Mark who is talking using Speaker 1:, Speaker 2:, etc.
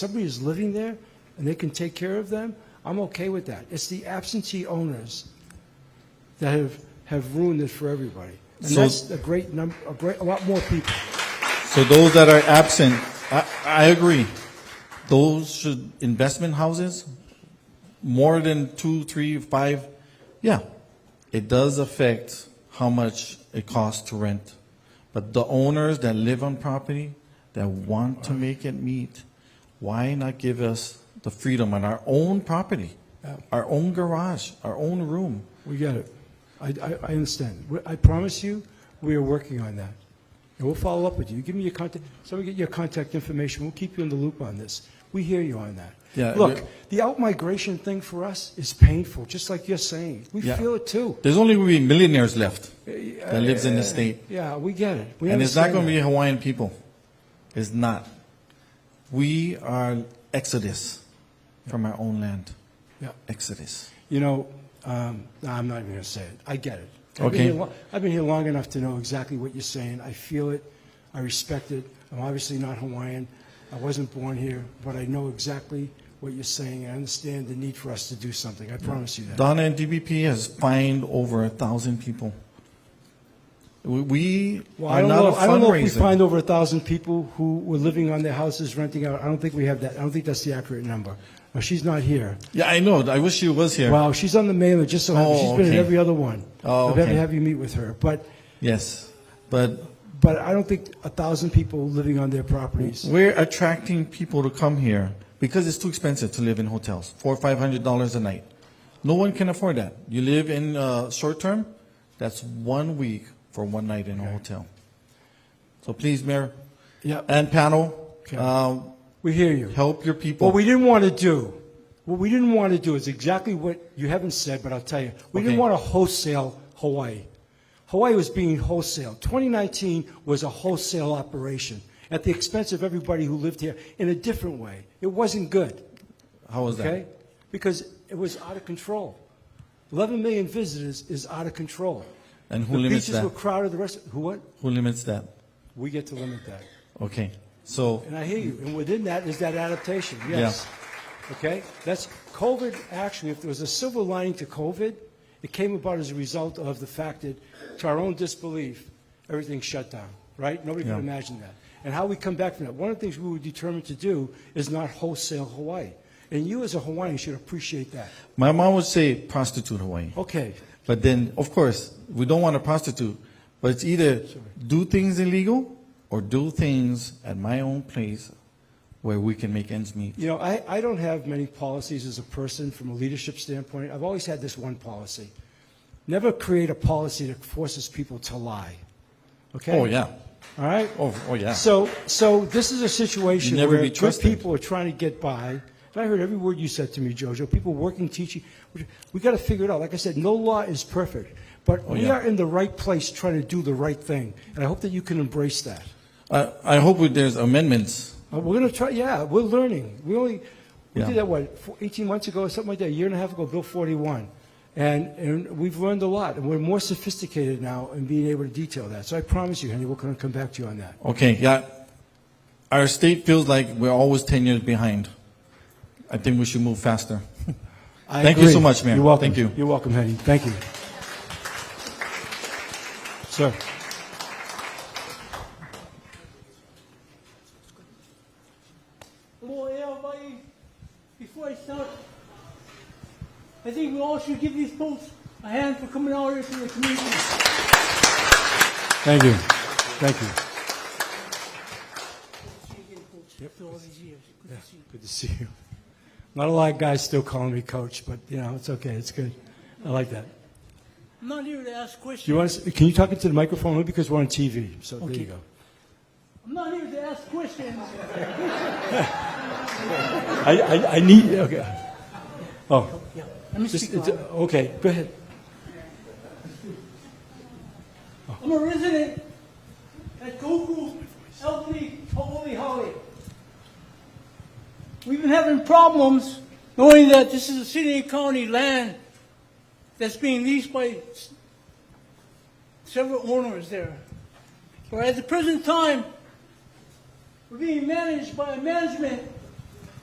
Speaker 1: somebody is living there and they can take care of them, I'm okay with that. It's the absentee owners that have, have ruined it for everybody. And
Speaker 2: So-
Speaker 1: that's a great number, a great, a lot more people.
Speaker 2: So those that are absent, I, I agree. Those should, investment houses, more than two, three, five, yeah. It does affect how much it costs to rent. But the owners that live on property, that want to make it meet, why not give us the freedom on our own property? Our own garage, our own room.
Speaker 1: We get it. I, I, I understand. We- I promise you, we are working on that. And we'll follow up with you. Give me your contact, somebody get your contact information. We'll keep you in the loop on this. We hear you on that.
Speaker 2: Yeah,
Speaker 1: Look,
Speaker 2: we-
Speaker 1: the outmigration thing for us is painful, just like you're saying. We
Speaker 2: Yeah.
Speaker 1: feel it too.
Speaker 2: There's only gonna be millionaires left that lives in the state.
Speaker 1: Yeah, we get it. We
Speaker 2: And it's not
Speaker 1: understand
Speaker 2: going to
Speaker 1: that.
Speaker 2: be Hawaiian people. It's not. We are exodus from our own land.
Speaker 1: Yeah.
Speaker 2: Exodus.
Speaker 1: You know, um, no, I'm not even going to say it. I get it. I've
Speaker 2: Okay.
Speaker 1: Been here lo- I've been here long enough to know exactly what you're saying. I feel it. I respect it. I'm obviously not Hawaiian. I wasn't born here, but I know exactly what you're saying. I understand the need for us to do something. I promise you that.
Speaker 2: Donna and DBP has fined over a thousand people. We- We
Speaker 1: Well, I
Speaker 2: are
Speaker 1: don't
Speaker 2: not
Speaker 1: know.
Speaker 2: a
Speaker 1: I don't know if we find
Speaker 2: fundraiser.
Speaker 1: over a thousand people who were living on their houses renting out. I don't think we have that. I don't think that's the accurate number. Now, she's not here.
Speaker 2: Yeah, I know. I wish she was here.
Speaker 1: Wow, she's on the mailer. Just so happens
Speaker 2: Oh,
Speaker 1: she's been
Speaker 2: okay.
Speaker 1: at every other one.
Speaker 2: Oh,
Speaker 1: I've had to
Speaker 2: okay.
Speaker 1: have you meet with her, but.
Speaker 2: Yes. But
Speaker 1: But I don't think a thousand people living on their properties.
Speaker 2: we're attracting people to come here because it's too expensive to live in hotels, four or five hundred dollars a night. No one can afford that. You live in uh, short term, that's one week for one night in a hotel. So please, Mayor
Speaker 1: Yeah,
Speaker 2: and panel,
Speaker 1: Okay.
Speaker 2: um,
Speaker 1: we hear you.
Speaker 2: help your people.
Speaker 1: What we didn't want to do, what we didn't want to do is exactly what you haven't said, but I'll tell you. We didn't
Speaker 2: Okay.
Speaker 1: want to wholesale Hawaii. Hawaii was being wholesale. 2019 was a wholesale operation at the expense of everybody who lived here in a different way. It wasn't good.
Speaker 2: How was
Speaker 1: okay?
Speaker 2: that?
Speaker 1: Because it was out of control. 11 million visitors is out of control.
Speaker 2: And who
Speaker 1: the
Speaker 2: limits
Speaker 1: beaches
Speaker 2: that?
Speaker 1: were crowded. The rest, who what?
Speaker 2: Who limits that?
Speaker 1: We get to limit that.
Speaker 2: Okay, so
Speaker 1: And I hear you. And within that is that adaptation, yes. Okay? That's COVID, actually, if there was a silver lining to COVID, it came about as a result of the fact that, to our own disbelief, everything shut down, right? Nobody could
Speaker 2: Yeah.
Speaker 1: imagine that. And how we come back from that. One of the things we were determined to do is not wholesale Hawaii. And you, as a Hawaiian, should appreciate that.
Speaker 2: my mom would say prostitute Hawaii.
Speaker 1: Okay.
Speaker 2: But then, of course, we don't want to prostitute. But it's either do things illegal or do things at my own place where we can make ends meet.
Speaker 1: You know, I, I don't have many policies as a person from a leadership standpoint. I've always had this one policy. Never create a policy that forces people to lie. Okay?
Speaker 2: Oh, yeah.
Speaker 1: All right?
Speaker 2: Oh, oh yeah.
Speaker 1: So, so this is a situation
Speaker 2: Never
Speaker 1: where
Speaker 2: be
Speaker 1: good
Speaker 2: trusted.
Speaker 1: people are trying to get by. And I heard every word you said to me, Jojo. People working, teaching. We- We got to figure it out. Like I said, no law is perfect, but we
Speaker 2: Oh, yeah.
Speaker 1: are in the right place trying to do the right thing. And I hope that you can embrace that.
Speaker 2: I, I hope we- there's amendments.
Speaker 1: Uh, We're going to try, yeah, we're learning. We only, we
Speaker 2: Yeah.
Speaker 1: did that, what, fo- 18 months ago, or something like that, a year and a half ago, Bill 41. And, and we've learned a lot, and we're more sophisticated now in being able to detail that. So I promise you, Henry, we're going to come back to you on that.
Speaker 2: Okay, yeah. Our state feels like we're always 10 years behind. I think we should move faster.
Speaker 1: I
Speaker 2: Thank you
Speaker 1: agree.
Speaker 2: so much, Mayor.
Speaker 1: You're welcome.
Speaker 2: Thank you.
Speaker 1: You're welcome, Henry. Thank you. Sir,
Speaker 3: more air Hawaii before I start. I think we all should give these folks a hand for coming out here for the community.
Speaker 1: thank you. Thank you.
Speaker 3: After all these years, good to see you.
Speaker 1: Good to see you. Not a lot of guys still calling me coach, but, you know, it's okay. It's good. I like that.
Speaker 3: I'm not here to ask
Speaker 1: Do
Speaker 3: questions.
Speaker 1: you want to, can you talk into the microphone? Only because we're on TV, so there you go.
Speaker 3: I'm not here to ask questions.
Speaker 1: I, I, I need, okay. Oh,
Speaker 3: Yeah, let me
Speaker 1: just,
Speaker 3: speak
Speaker 1: it's,
Speaker 3: loud.
Speaker 1: okay, go ahead.
Speaker 3: I'm a resident at Goku Elkley Holy Holly. We've been having problems knowing that this is a city and county land that's being leased by s- several owners there. But at the present time, we're being managed by a management